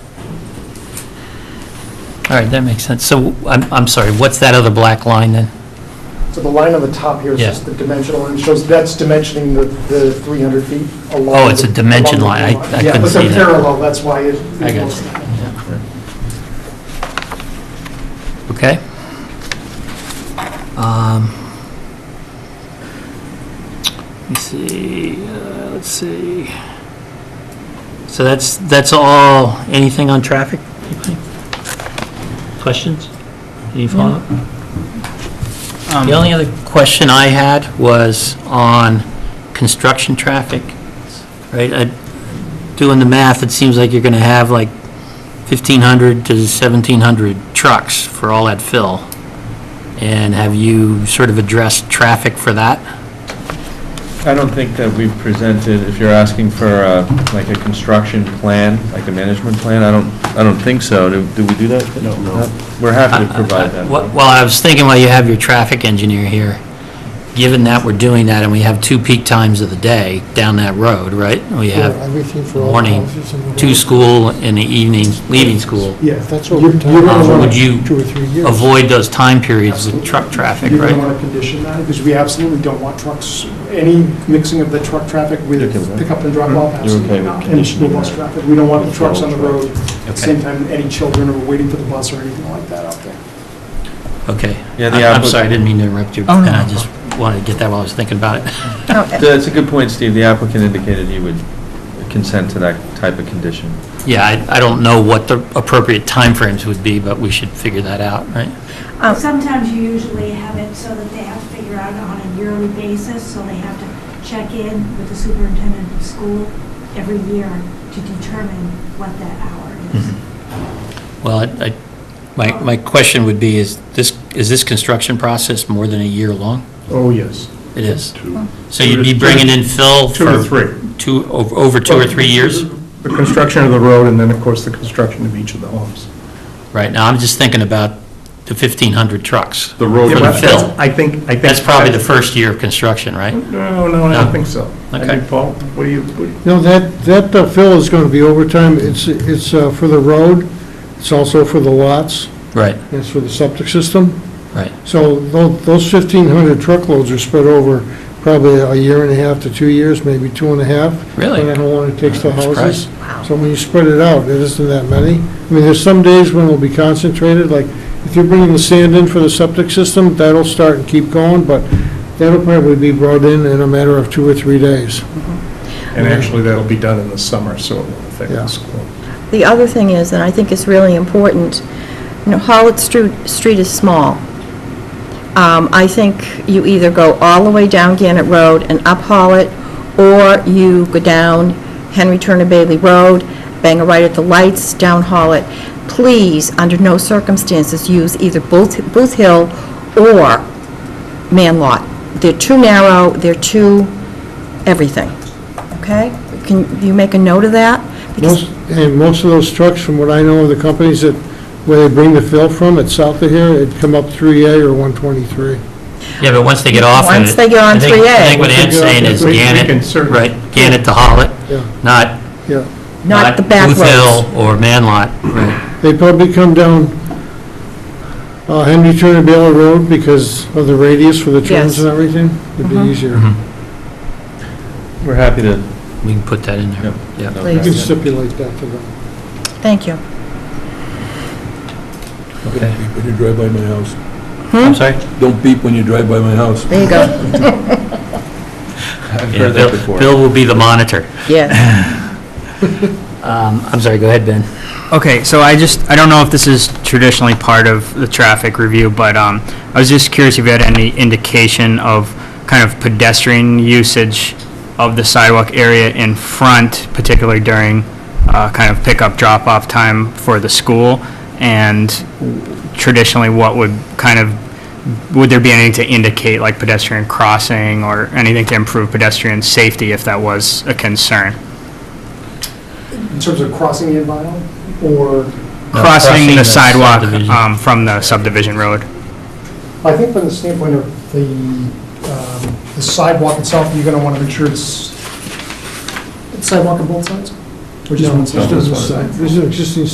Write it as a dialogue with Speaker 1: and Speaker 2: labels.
Speaker 1: All right, that makes sense. So, I'm, I'm sorry, what's that other black line then?
Speaker 2: So the line on the top here is
Speaker 1: Yeah.
Speaker 2: just the dimensional, and it shows, that's dimensioning the, the 300 feet along.
Speaker 1: Oh, it's a
Speaker 2: the-
Speaker 1: dimension
Speaker 2: along the
Speaker 1: line. I-
Speaker 2: line.
Speaker 1: I
Speaker 2: Yeah,
Speaker 1: couldn't
Speaker 2: but they're
Speaker 1: see that.
Speaker 2: parallel, that's why it.
Speaker 1: I got you. Okay? Um, Let me see, uh, let's see. So that's, that's all, anything on traffic? Anybody? Questions? Any follow-up?
Speaker 3: Um,
Speaker 1: The only other question I had was on construction traffic, right? I- Doing the math, it seems like you're going to have like 1,500 to 1,700 trucks for all that fill. And have you sort of addressed traffic for that?
Speaker 3: I don't think that we've presented, if you're asking for uh, like a construction plan, like a management plan, I don't, I don't think so. Do do we do that? No. We're happy
Speaker 1: Uh,
Speaker 3: to provide that.
Speaker 1: Well, well, I was thinking while you have your traffic engineer here, given that we're doing that and we have two peak times of the day down that road, right? We have
Speaker 4: Everything for all
Speaker 1: morning,
Speaker 4: houses in the
Speaker 1: two
Speaker 4: world.
Speaker 1: school and the evenings, leaving school.
Speaker 2: Yeah.
Speaker 4: That's
Speaker 2: You-
Speaker 4: over
Speaker 2: you
Speaker 4: time.
Speaker 2: don't
Speaker 1: Um,
Speaker 2: wanna-
Speaker 1: Would you
Speaker 4: Two or three years.
Speaker 1: avoid those time periods with truck traffic,
Speaker 2: You don't
Speaker 1: right?
Speaker 2: want to condition that, because we absolutely don't want trucks, any mixing of the truck traffic
Speaker 3: You're okay with
Speaker 2: with
Speaker 3: that?
Speaker 2: pickup and drop-off.
Speaker 3: You're okay
Speaker 2: absolutely
Speaker 3: with
Speaker 2: not. And
Speaker 3: conditioning
Speaker 2: school bus
Speaker 3: that?
Speaker 2: traffic, we don't want the
Speaker 3: With all
Speaker 2: trucks on the
Speaker 3: trucks.
Speaker 2: road, at the same time, any children are waiting for the bus or anything like that out there.
Speaker 1: Okay.
Speaker 3: Yeah, the
Speaker 1: I- I'm
Speaker 3: applic-
Speaker 1: sorry, I didn't mean to interrupt you.
Speaker 5: Oh, no,
Speaker 1: And I
Speaker 5: no.
Speaker 1: just wanted to get that while I was thinking about it.
Speaker 5: No, eh,
Speaker 3: That's a good point, Steve. The applicant indicated he would consent to that type of condition.
Speaker 1: Yeah, I, I don't know what the appropriate timeframes would be, but we should figure that out, right?
Speaker 5: um,
Speaker 6: Sometimes you usually have it so that they have to figure out on a yearly basis, so they have to check in with the superintendent of school every year to determine what that hour is.
Speaker 1: Well, I, I- my, my question would be, is this, is this construction process more than a year long?
Speaker 7: Oh, yes.
Speaker 1: It is.
Speaker 7: Two
Speaker 1: So you'd be bringing in fill
Speaker 7: two to
Speaker 1: for
Speaker 7: three.
Speaker 1: two, o- over two or three years?
Speaker 7: The construction of the road, and then, of course, the construction of each of the homes.
Speaker 1: Right, now I'm just thinking about the 1,500 trucks.
Speaker 7: The road.
Speaker 1: For the fill.
Speaker 7: I think, I think.
Speaker 1: That's probably the first year of construction, right?
Speaker 7: No, no, I
Speaker 1: No?
Speaker 7: don't think so. I
Speaker 1: Okay.
Speaker 7: think, Paul, what do you, what do you-
Speaker 4: No, that, that uh, fill is going to be overtime. It's, it's uh, for the road, it's also for the lots,
Speaker 7: Mm-hmm.
Speaker 1: Right,
Speaker 4: and it's for the septic system.
Speaker 1: right.
Speaker 4: So tho- those 1,500 truckloads are spread over probably a year and a half to two years, maybe two and a half.
Speaker 1: Really?
Speaker 4: Depending on how long it takes to
Speaker 1: I'm
Speaker 4: houses.
Speaker 1: surprised.
Speaker 4: So when you spread it out, it isn't that many. I mean, there's some days when it'll be concentrated, like if you're bringing the sand in for the septic system, that'll start and keep going, but that'll probably be brought in in a matter of two or three days.
Speaker 7: and actually, that'll be done in the summer, so it won't affect
Speaker 4: Yeah.
Speaker 7: the school.
Speaker 5: The other thing is, and I think it's really important, you know, Hollitt Stru- Street is small. Um, I think you either go all the way down Gannett Road and up Hollitt, or you go down Henry Turner Bailey Road, bang a right at the lights, down Hollitt. Please, under no circumstances, use either Booth Booth Hill or Man Lot. They're too narrow, they're too everything, okay? Can you make a note of that? Because
Speaker 4: Most, and most of those trucks, from what I know of the companies that, where they bring the fill from, it's south of here, it'd come up 3A or 123.
Speaker 1: Yeah, but once they get off of it.
Speaker 5: Once they get on
Speaker 1: I think-
Speaker 5: 3A.
Speaker 1: I think what
Speaker 7: Once they
Speaker 1: Ann's
Speaker 7: get off
Speaker 1: saying
Speaker 7: it,
Speaker 1: is
Speaker 7: we- we can
Speaker 1: Gannett,
Speaker 7: certainly-
Speaker 1: right, Gannett to Hollitt,
Speaker 4: Yeah,
Speaker 1: not.
Speaker 4: yeah.
Speaker 5: Not the back
Speaker 1: Booth Hill
Speaker 5: roads.
Speaker 1: or Manlot, right,
Speaker 4: They probably come down uh, Henry Turner Baylor Road because of the radius for the
Speaker 5: Yes.
Speaker 4: turns and everything. It'd be easier.
Speaker 2: Mm-hmm.
Speaker 1: Mhm.
Speaker 3: We're happy to.
Speaker 1: we can put that in there. Yeah.
Speaker 4: You can
Speaker 5: Please.
Speaker 4: stipulate that for them.
Speaker 5: Thank you.
Speaker 1: Okay.
Speaker 8: When you drive by my house.
Speaker 1: I'm sorry?
Speaker 8: Don't beep when you drive by my house.
Speaker 5: There you go.
Speaker 3: I've
Speaker 1: Yeah,
Speaker 3: heard that
Speaker 1: Bill-
Speaker 3: before.
Speaker 1: Bill will be the monitor.
Speaker 5: Yes.
Speaker 1: Um, I'm sorry, go ahead, Ben.
Speaker 9: Okay, so I just, I don't know if this is traditionally part of the traffic review, but um, I was just curious if you had any indication of kind of pedestrian usage of the sidewalk area in front, particularly during uh, kind of pickup, drop-off time for the school? And traditionally, what would kind of, would there be anything to indicate, like pedestrian crossing or anything to improve pedestrian safety if that was a concern?
Speaker 2: In terms of crossing the environment, or,
Speaker 9: Crossing the sidewalk
Speaker 1: subdivision.
Speaker 9: um, from the subdivision road?
Speaker 2: I think from the standpoint of the um, the sidewalk itself, you're going to want to make sure it's it's sidewalk on both sides? Or just one side?
Speaker 4: This is an existing